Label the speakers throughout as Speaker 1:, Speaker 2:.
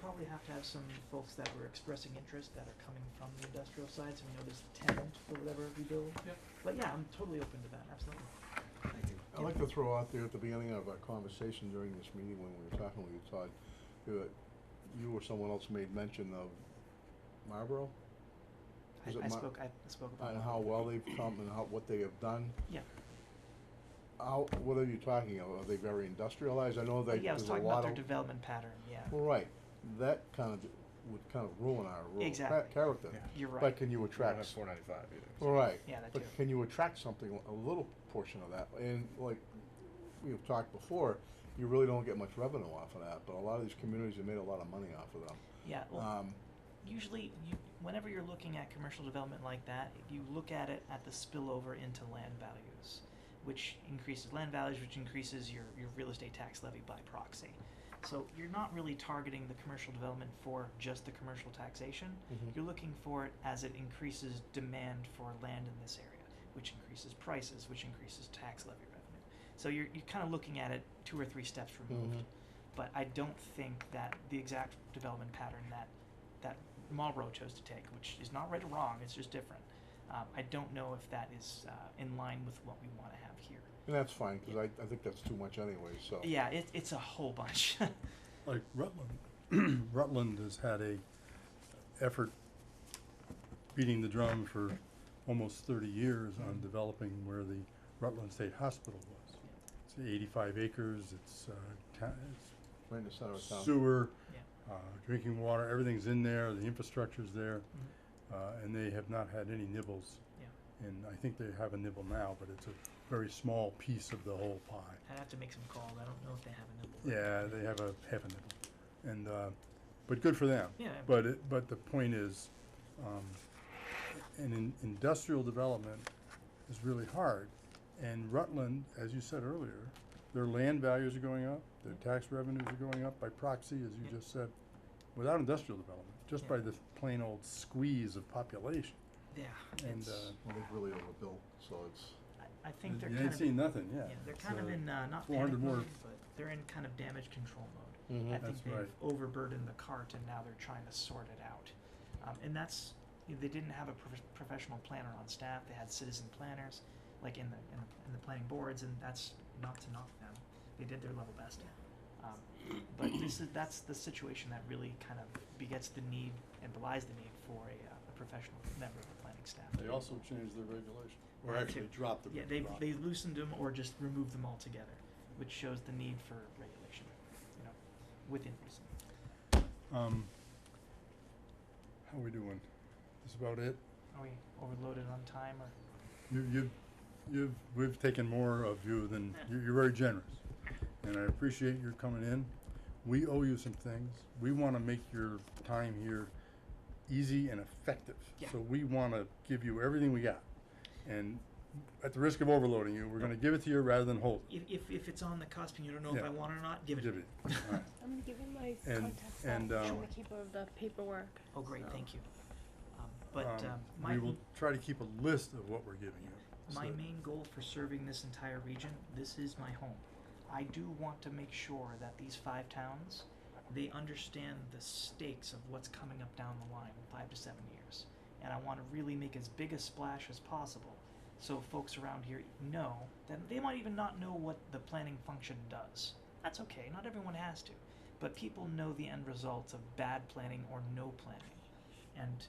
Speaker 1: probably have to have some folks that were expressing interest that are coming from the industrial side, so we know there's tenant for whatever we build.
Speaker 2: Yep.
Speaker 1: But yeah, I'm totally open to that, absolutely.
Speaker 3: I'd like to throw out there at the beginning of our conversation during this meeting when we were talking with you, Todd, that you or someone else made mention of Marlboro
Speaker 1: I,
Speaker 3: Is it
Speaker 1: I
Speaker 3: my-
Speaker 1: spoke, I spoke about.
Speaker 3: and how well they've come and how, what they have done.
Speaker 1: Yeah.
Speaker 3: How, what are you talking about? Are they very industrialized? I know
Speaker 1: But
Speaker 3: they,
Speaker 1: yeah, I
Speaker 3: there's
Speaker 1: was
Speaker 3: a lot of.
Speaker 1: talking about their development pattern, yeah,
Speaker 3: Well, right, that kind of, would kind of ruin our rural cha-
Speaker 1: Exactly.
Speaker 3: character.
Speaker 4: Yeah.
Speaker 1: you're right.
Speaker 3: But can you
Speaker 4: We don't
Speaker 3: attract
Speaker 4: have four ninety-five either. so-
Speaker 3: All right.
Speaker 1: Yeah, that
Speaker 3: But
Speaker 1: too.
Speaker 3: can you attract something, a little portion of that? And like we've talked before, you really don't get much revenue off of that, but a lot of these communities have made a lot of money off of them.
Speaker 1: Yeah, well,
Speaker 3: Um,
Speaker 1: usually, you, whenever you're looking at commercial development like that, you look at it at the spillover into land values, which increases land values, which increases your, your real estate tax levy by proxy. So you're not really targeting the commercial development for just the commercial taxation.
Speaker 3: Mhm.
Speaker 1: You're looking for it as it increases demand for land in this area, which increases prices, which increases tax levy revenue. So you're, you're kind of looking at it two or three steps removed.
Speaker 3: Mhm.
Speaker 1: But I don't think that the exact development pattern that that Marlboro chose to take, which is not right or wrong, it's just different. Um, I don't know if that is uh, in line with what we want to have here.
Speaker 3: and that's fine, cause I, I think that's too much anyway, so.
Speaker 1: Yeah, it, it's a whole bunch.
Speaker 5: like Rutland, Rutland has had a effort beating the drum for almost thirty years on developing where the Rutland State Hospital was. It's eighty-five acres, it's, uh, ta-
Speaker 3: Right in the center of
Speaker 5: it's
Speaker 3: town.
Speaker 5: sewer,
Speaker 1: Yeah.
Speaker 5: uh, drinking water, everything's in there, the infrastructure's there, uh, and they have not had any nibbles.
Speaker 1: Mm-hmm. Yeah.
Speaker 5: And I think they have a nibble now, but it's a very small piece of the whole pie.
Speaker 1: I'd have to make some calls. I don't know if they have a number.
Speaker 5: Yeah, they have a half a nibble, and uh, but good for them.
Speaker 1: Yeah.
Speaker 5: But it, but the point is, um, an in, industrial development is really hard, and Rutland, as you said earlier, their land values are going up, their tax revenues are going up by proxy, as you
Speaker 1: Yeah.
Speaker 5: just said, without industrial development, just
Speaker 1: Yeah.
Speaker 5: by this plain old squeeze of population,
Speaker 1: Yeah.
Speaker 5: and
Speaker 1: it's-
Speaker 5: uh,
Speaker 3: Well, they've really overbuilt, so it's,
Speaker 1: I, I think they're
Speaker 5: you
Speaker 1: kind
Speaker 5: ain't
Speaker 1: of
Speaker 5: seen nothing, yeah.
Speaker 1: yeah, they're kind of
Speaker 5: So-
Speaker 1: in uh, not
Speaker 5: 400
Speaker 1: panic
Speaker 5: more.
Speaker 1: mode, but they're in kind of damage control mode. I
Speaker 3: Mhm.
Speaker 1: think
Speaker 5: That's
Speaker 1: they've
Speaker 5: right.
Speaker 1: overburdened the cart and now they're trying to sort it out. Um, and that's they didn't have a prof- professional planner on staff. They had citizen planners, like in the in the, in the planning boards, and that's not to knock them. They did their level best. Um, but this is that's the situation that really kind of begets the need and belies the need for a, uh, a professional member of the planning staff.
Speaker 5: They also changed their regulation, or
Speaker 1: Yeah,
Speaker 5: actually
Speaker 1: too.
Speaker 5: dropped the.
Speaker 1: Yeah, they
Speaker 5: drop.
Speaker 1: they loosened them or just removed them altogether, which shows the need for regulation, you know, within reason.
Speaker 5: Um, how we doing? That's about it.
Speaker 1: Are we overloaded on time or?
Speaker 5: You, you, you've, we've taken more of you than, you- you're very generous. And I appreciate your coming in. We owe you some things. We wanna make your time here easy and effective.
Speaker 1: Yeah.
Speaker 5: So we wanna give you everything we got. And at the risk of overloading you, we're gonna give it to you rather than hold it.
Speaker 1: If, if, if it's on the cusp and you don't know if
Speaker 5: Yeah.
Speaker 1: I want it or not, give it. to
Speaker 5: Give
Speaker 1: me.
Speaker 5: it, all right.
Speaker 6: I'm gonna give him my
Speaker 5: And-
Speaker 6: contact stuff.
Speaker 5: and, um,
Speaker 6: I'm gonna keep all of the paperwork.
Speaker 1: Oh, great,
Speaker 6: So-
Speaker 1: thank you. Um, but
Speaker 5: Um,
Speaker 1: um, my,
Speaker 5: We will try to keep a list of what we're giving you.
Speaker 1: my
Speaker 5: so-
Speaker 1: main goal for serving this entire region, this is my home. I do want to make sure that these five towns, they understand the stakes of what's coming up down the line in five to seven years. And I want to really make as big a splash as possible so folks around here know that they might even not know what the planning function does. That's okay, not everyone has to. But people know the end results of bad planning or no planning. And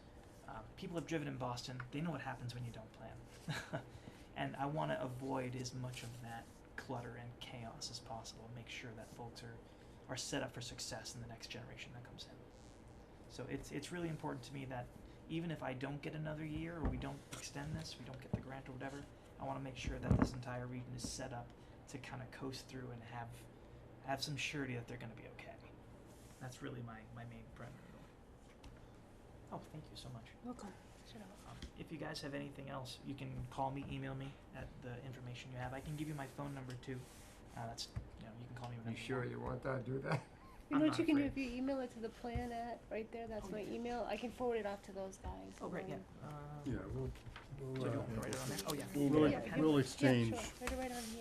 Speaker 1: um, people have driven in Boston, they know what happens when you don't plan. and I want to avoid as much of that clutter and chaos as possible, make sure that folks are are set up for success in the next generation that comes in. So it's it's really important to me that even if I don't get another year or we don't extend this, we don't get the grant or whatever, I want to make sure that this entire region is set up to kind of coast through and have have some surety that they're going to be okay. That's really my my main primary goal. Oh, thank you so much.
Speaker 6: Welcome. Shut up.
Speaker 1: Um, if you guys have anything else, you can call me, email me at the information you have. I can give you my phone number too. Uh, that's you know you can call me
Speaker 2: You
Speaker 1: whenever.
Speaker 2: sure
Speaker 1: want.
Speaker 2: you want that, do that?
Speaker 6: You
Speaker 1: I'm
Speaker 6: know
Speaker 1: not
Speaker 6: what you can do if
Speaker 1: afraid.
Speaker 6: you email it to the plan at right there. That's
Speaker 1: Oh,
Speaker 6: my
Speaker 1: yeah.
Speaker 6: email. I can forward it off to those guys.
Speaker 1: Oh, great,
Speaker 6: um,
Speaker 1: yeah. Uh,
Speaker 5: Yeah, we'll,
Speaker 1: So
Speaker 5: we'll,
Speaker 1: do you
Speaker 5: uh,
Speaker 1: want me to write it on there? Oh, yeah.
Speaker 5: we'll,
Speaker 6: Yeah,
Speaker 5: we'll
Speaker 6: yeah, sure.
Speaker 5: exchange
Speaker 6: Right, right on